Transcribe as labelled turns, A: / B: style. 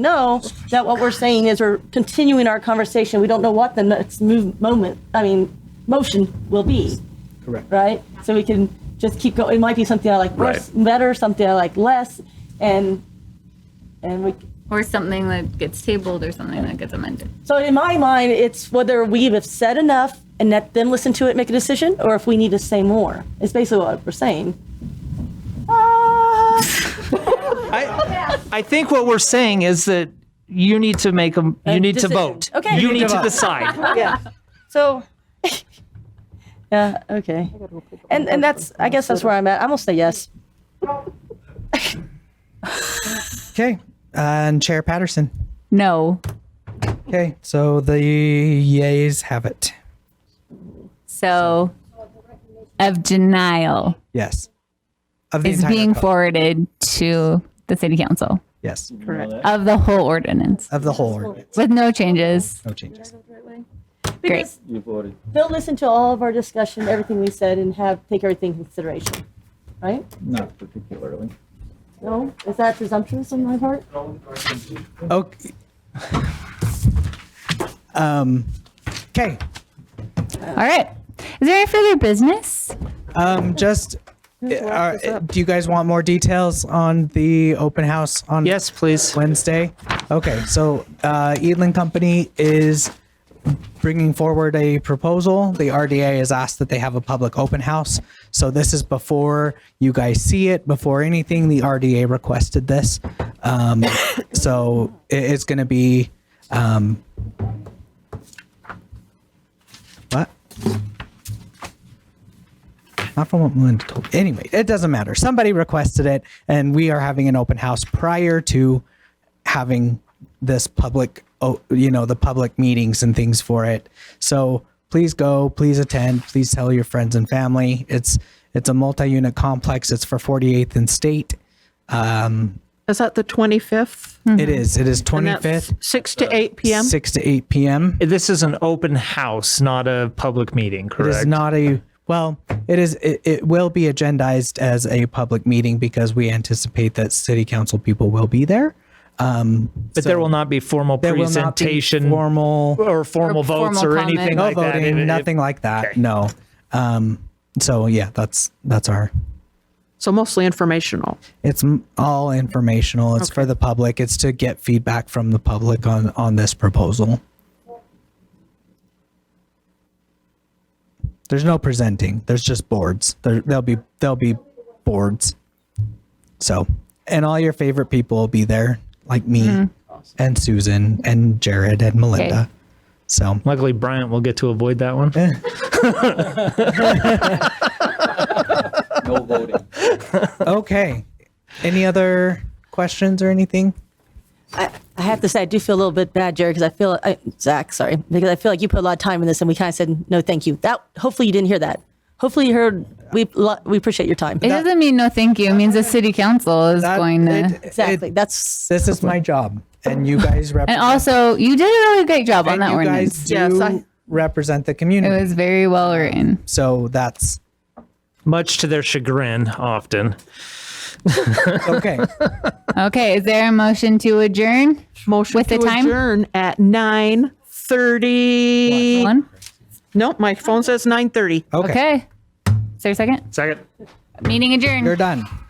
A: know that what we're saying is we're continuing our conversation. We don't know what the next move, moment, I mean, motion will be,
B: Correct.
A: right? So we can just keep going. It might be something I like worse,
C: Right.
A: better, something I like less, and, and we,
D: Or something that gets tabled or something that gets amended.
A: so in my mind, it's whether we have said enough and let them listen to it, make a decision, or if we need to say more. It's basically what we're saying.
B: I,
E: I think what we're saying is that you need to make them, you need to
A: decision.
E: vote.
A: Okay.
E: You need to
B: vote.
E: decide.
A: Yeah. So, yeah, okay. And, and that's, I guess that's where I'm at. I'm gonna say yes.
F: Okay. And Chair Patterson.
D: No.
F: Okay. So the yays have it.
D: So of denial
F: Yes. Of the
D: is
F: entire
D: being
F: code.
D: forwarded to the city council
F: Yes.
D: of the whole ordinance
F: Of the whole ordinance.
D: with no changes.
F: No changes.
D: Great.
A: Because They'll listen to all of our discussion, everything we said, and have, take everything in consideration, right?
B: Not particularly.
A: No? Is that presumptuous on my part?
F: Okay. Um, okay. Oh.
D: All right. Is there any further business?
F: Um, just, uh, do you guys want more details on the open house on
E: Yes, please.
F: Wednesday? Okay. So, uh, Edlin Company is bringing forward a proposal. The RDA has asked that they have a public open house. So this is before you guys see it, before anything, the RDA requested this. Um, so it- it's going to be, um, what? Not from what Melinda told. Anyway, it doesn't matter. Somebody requested it and we are having an open house prior to having this public, oh, you know, the public meetings and things for it. So please go, please attend, please tell your friends and family. It's, it's a multi-unit complex. It's for 48th and State.
G: Is that the 25th?
F: It is, it is
G: Mm-hmm. And that's
F: 25th,
G: 6 to 8 p.m.?
F: six to eight PM.
E: This is an open house, not a public meeting,
F: It
E: correct?
F: is not a, well, it is, it, it will be agendized as a public meeting because we anticipate that city council people will be there.
E: But there will not be formal
F: There will not be
E: presentation
F: formal.
E: or formal
D: Or
E: votes
D: formal
E: or
D: comment.
E: anything
F: no
E: like that.
F: voting,
E: It- it-
F: nothing like that.
E: Okay.
F: No. Um, so yeah, that's that's our.
G: So mostly informational.
F: It's m- all informational. It's for the public. It's to get feedback from the public on on this proposal. There's no presenting. There's just boards. There, there'll be there'll be boards. So, and all your favorite people will be there, like me, and Susan, and Jared, and Melinda. So
E: Luckily, Bryant will get to avoid that one.
B: No voting.
F: Okay. Any other questions or anything?
A: I, I have to say, I do feel a little bit bad, Jerry, because I feel, I, Zach, sorry, because I feel like you put a lot of time in this and we kind of said, no, thank you. That, hopefully you didn't hear that. Hopefully you heard, we, lo- we appreciate your time.
D: It doesn't mean no thank you. It means the city council is
F: That-
D: going to.
F: it-
A: Exactly.
F: it-
A: That's,
F: this is my job, and you guys
D: and
F: represent.
D: also, you did a really great job on
F: and
D: that
F: you
D: ordinance.
F: guys do
G: Yes, I-
F: represent the
D: it
F: community.
D: was very well written.
F: so that's
E: Much to their chagrin, often.
F: okay.
D: Okay. Is there a motion to adjourn?
G: Motion
D: With
G: to
D: the time?
G: adjourn at 9:30.
D: One.
G: Nope, my phone says 9:30.
F: Okay.
D: Okay. Is there a second?
E: Second.
D: Meeting adjourned.
F: You're done.